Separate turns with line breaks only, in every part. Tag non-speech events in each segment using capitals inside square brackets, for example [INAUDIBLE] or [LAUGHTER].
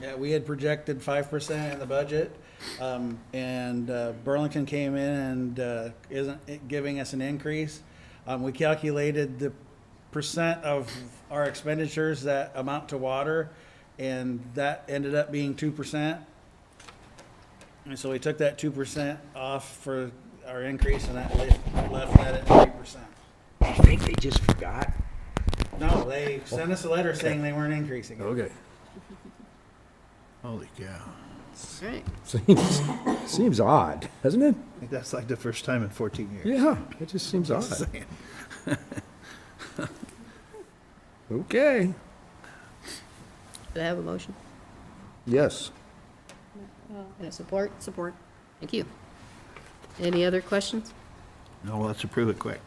Yeah, we had projected five percent in the budget, um, and, uh, Burlington came in and, uh, isn't giving us an increase. Um, we calculated the percent of our expenditures that amount to water, and that ended up being two percent. And so we took that two percent off for our increase, and that left, left that at three percent.
I think they just forgot.
No, they sent us a letter saying they weren't increasing it.
Okay. [LAUGHS] Holy cow.
Right.
Seems, seems odd, doesn't it?
I think that's like the first time in 14 years. [LAUGHS]
Yeah, it just seems odd. Okay,
Do I have a motion?
yes.
And a support? Support. Thank you. Any other questions?
No, Oh, let's approve it quick.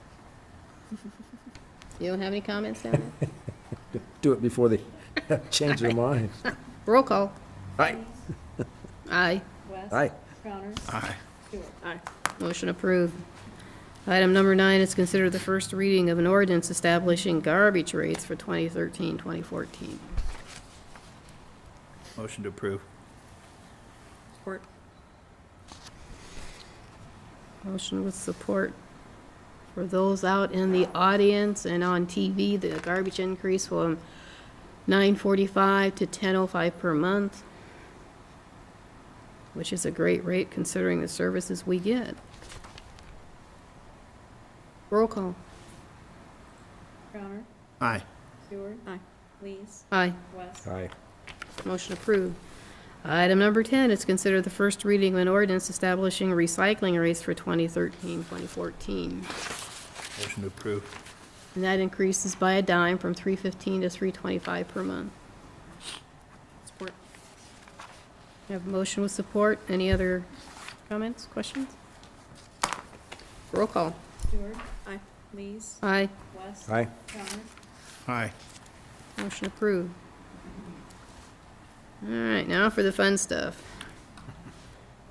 You don't have any comments down there?
Do it before they [LAUGHS] change their minds.
Roll call.
Aye,
Aye.
West.
aye.
Crowner.
Aye.
Stewart.
Motion approved. Item number nine is considered the first reading of an ordinance establishing garbage rates for 2013, 2014.
Motion to approve.
Support. Motion with support. For those out in the audience and on TV, the garbage increase from 9.45 to 10.05 per month, which is a great rate considering the services we get. Roll call.
Crowner.
Aye.
Stewart. Aye. Lees.
Aye.
West.
Aye.
Motion approved. Item number 10 is considered the first reading of an ordinance establishing recycling rates for 2013, 2014.
Motion to approve.
And that increases by a dime from 315 to 325 per month. Support. We have a motion with support. Any other comments, questions? Roll call.
Stewart. Aye. Lees.
Aye.
West.
Aye.
Crowner.
Aye.
Motion approved. All right, now for the fun stuff.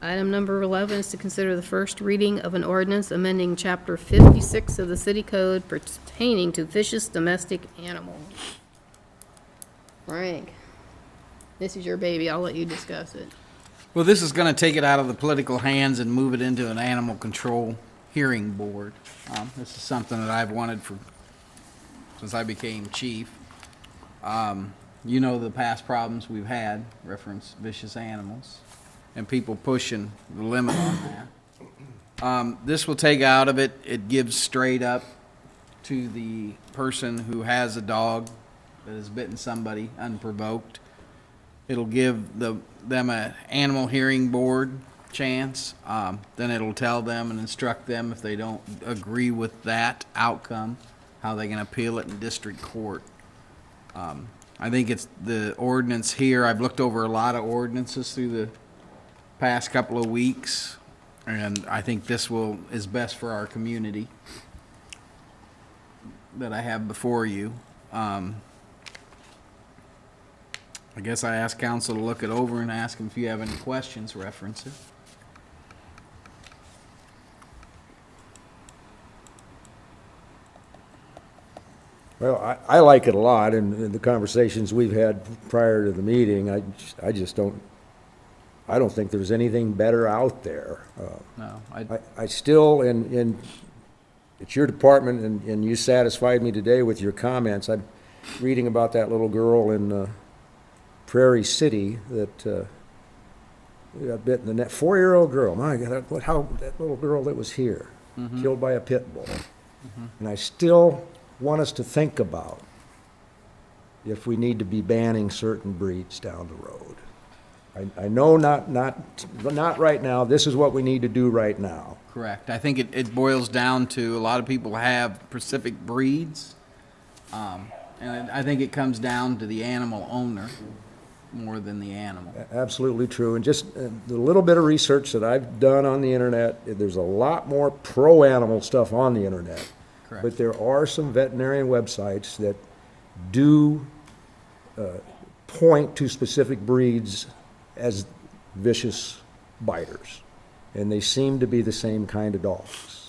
Item number 11 is to consider the first reading of an ordinance amending Chapter 56 of the City Code pertaining to vicious domestic animals. Frank, this is your baby. I'll let you discuss it.
Well, this is going to take it out of the political hands and move it into an animal control hearing board. Um, This is something that I've wanted for, since I became chief. Um, You know the past problems we've had, reference vicious animals, and people pushing the limit on that. Um, This will take out of it, it gives straight up to the person who has a dog that has bitten somebody unprovoked. It'll give the, them a animal hearing board chance. Um, then it'll tell them and instruct them if they don't agree with that outcome, how they can appeal it in district court. Um, I think it's the ordinance here. I've looked over a lot of ordinances through the past couple of weeks, and I think this will is best for our community that I have before you. Um, I guess I asked council to look it over and ask them if you have any questions, reference it.
Well, I, I like it a lot, and and the conversations we've had prior to the meeting, I, j- I just don't, I don't think there's anything better out there. Uh,
No, I,
I, I still, and, and it's your department, and, and you satisfied me today with your comments. I'm reading about that little girl in uh, Prairie City that uh, got bit in the neck, four-year-old girl, my God, that- what, how, that little girl that was here, killed by a pit bull. And I still want us to think about if we need to be banning certain breeds down the road. I, I know not, not, not right now, this is what we need to do right now.
correct. I think it, it boils down to, a lot of people have specific breeds. Um, and I think it comes down to the animal owner more than the animal.
Absolutely true, and just uh, the little bit of research that I've done on the internet, eh, there's a lot more pro-animal stuff on the internet.
Correct.
But there are some veterinarian websites that do uh, point to specific breeds as vicious biters. And they seem to be the same kind of dogs,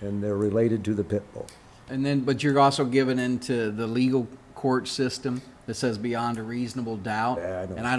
and they're related to the pit bull.
And then, but you're also given into the legal court system that says beyond a reasonable doubt.
Yeah, I know.
And I don't